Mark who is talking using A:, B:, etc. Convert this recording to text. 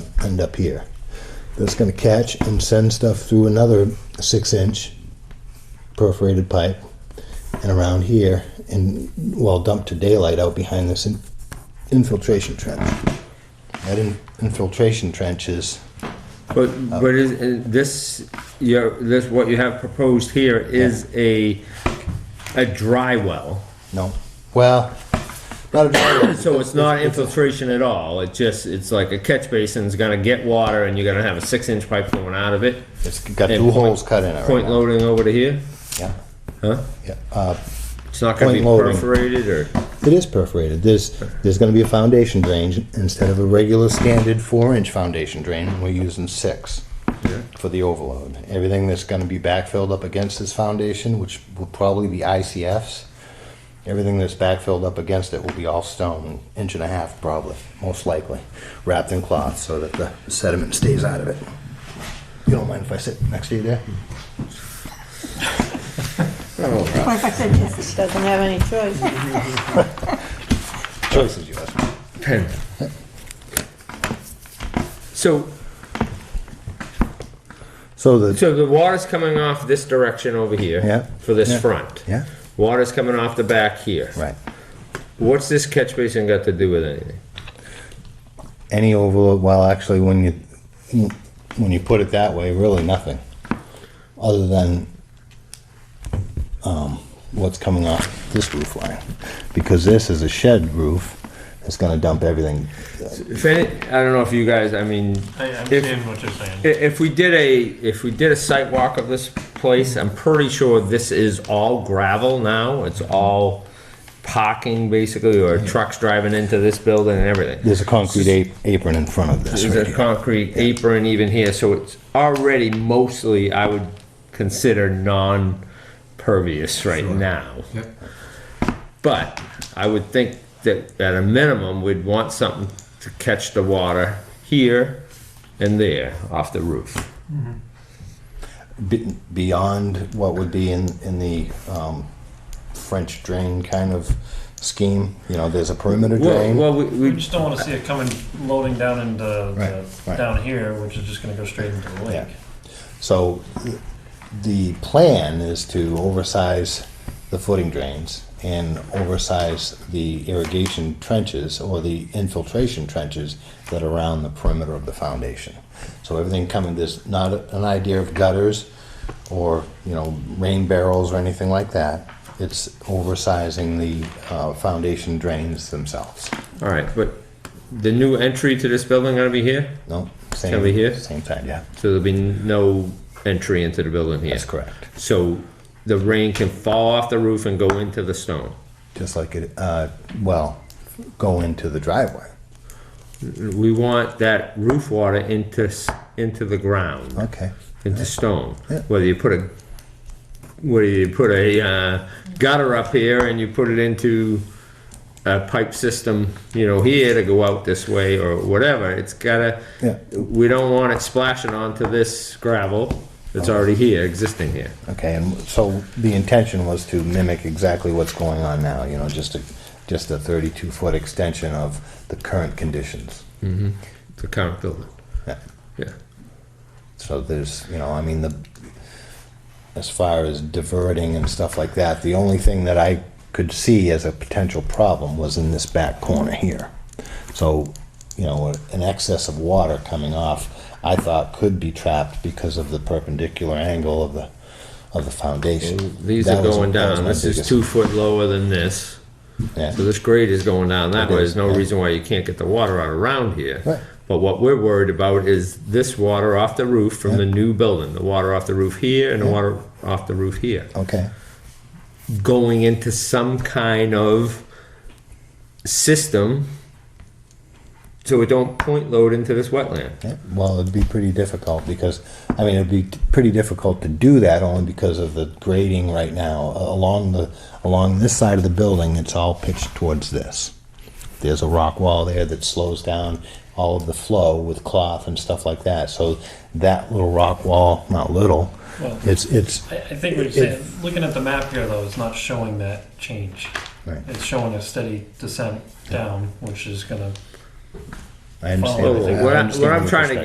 A: and up here. That's going to catch and send stuff through another six inch perforated pipe and around here and well dump to daylight out behind this in- infiltration trench. That in- infiltration trench is
B: But,
A: Oh.
B: but is, is this, your, this, what you have proposed here is a, a dry well.
A: no, well, not a dry
B: So it's not infiltration at all, it just, it's like a catch basin's gonna get water and you're gonna have a six inch pipe going out of it.
A: It's got
B: And
A: two
B: point-
A: holes cut in it.
B: Point
A: right
B: loading over to here,
A: now.
B: huh?
A: Yeah, yeah. Uh,
B: It's not gonna be
A: Point loading.
B: perforated or,
A: It is perforated. There's, there's gonna be a foundation drain instead of a regular standard four-inch foundation drain, we're using six for the overload. Everything that's gonna be backfilled up against this foundation, which will probably be ICFs, everything that's backfilled up against it will be all stone, inch and a half probably, most likely, wrapped in cloth so that the sediment stays out of it. You don't mind if I sit next to you there?
C: What if I said yes, it doesn't have any choice?
A: Choice is yours.
B: pen. So,
A: So the,
B: so the water's coming off this direction over here.
A: Yeah.
B: For this
A: Yeah.
B: front.
A: yeah,
B: Water's coming off the back here.
A: right.
B: What's this catch basin got to do with anything?
A: any overload, well, actually, when you, when you put it that way, really nothing, other than um, what's coming off this roof line, because this is a shed roof, it's gonna dump everything.
B: If any, I don't know if you guys, I mean,
D: I
B: If-
D: understand what you're saying.
B: i- if we did a, if we did a site walk of this place, I'm pretty sure this is all gravel now. It's all parking basically, or trucks driving into this building and everything.
A: There's a concrete ap- apron in front of this right
B: There's a
A: here.
B: concrete apron even here, so it's already mostly, I would consider non-pervious right now.
E: Yep.
B: But I would think that at a minimum, we'd want something to catch the water here and there off the roof.
A: Be- Beyond what would be in, in the um, French drain kind of scheme, you know, there's a perimeter
B: Well,
A: drain.
B: well, we,
D: We
B: we,
D: just don't want to see it coming loading down into the,
A: Right, right.
D: down here, which is just going to go straight into the lake.
A: Yeah. So th- the plan is to oversize the footing drains and oversize the irrigation trenches or the infiltration trenches that are around the perimeter of the foundation. So everything coming, there's not a- an idea of gutters or, you know, rain barrels or anything like that. It's oversizing the uh, foundation drains themselves.
B: all right, but the new entry to this building gonna be here?
A: No, same.
B: Can we hear?
A: Same time, yeah.
B: So there'll be no entry into the building here?
A: That's correct.
B: So the rain can fall off the roof and go into the stone?
A: Just like it, uh, well, go into the driveway.
B: We want that roof water into, s- into the ground.
A: Okay.
B: into stone.
A: Yeah.
B: Whether you put a whether you put a uh, gutter up here and you put it into a pipe system, you know, here to go out this way or whatever, it's gotta.
A: Yeah.
B: We don't want it splashing onto this gravel that's already here, existing here.
A: Okay, and so the intention was to mimic exactly what's going on now, you know, just a, just a 32-foot extension of the current conditions.
B: The current building.
A: Yeah.
B: Yeah.
A: So there's, you know, I mean, the, as far as diverting and stuff like that, the only thing that I could see as a potential problem was in this back corner here. So, you know, an excess of water coming off, I thought could be trapped because of the perpendicular angle of the, of the foundation.
B: These
A: That
B: are
A: was-
B: going
A: that was
B: down.
A: my
B: This is
A: biggest-
B: two foot lower than this.
A: Yeah.
B: So this grade is going down that way, there's no
A: It is, yeah.
B: reason why you can't get the water out around here.
A: Right.
B: But what we're worried about is this water off the roof from the new building, the water off the roof here and the water off the roof here,
A: Okay.
B: going into some kind of system so it don't point load into this wetland.
A: Yeah, Well, it'd be pretty difficult because, I mean, it'd be t- pretty difficult to do that only because of the grading right now. A- Along the, along this side of the building, it's all pitched towards this. There's a rock wall there that slows down all of the flow with cloth and stuff like that. So that little rock wall, not little,
D: Well,
A: it's, it's,
D: I, I think we're saying, looking at the map here though, it's not showing that change.
A: Right.
D: It's showing a steady descent down, which is going to
B: I understand.
F: Follow
B: what-
A: What
B: I
A: I-
B: understand
A: what I'm
B: your
A: trying to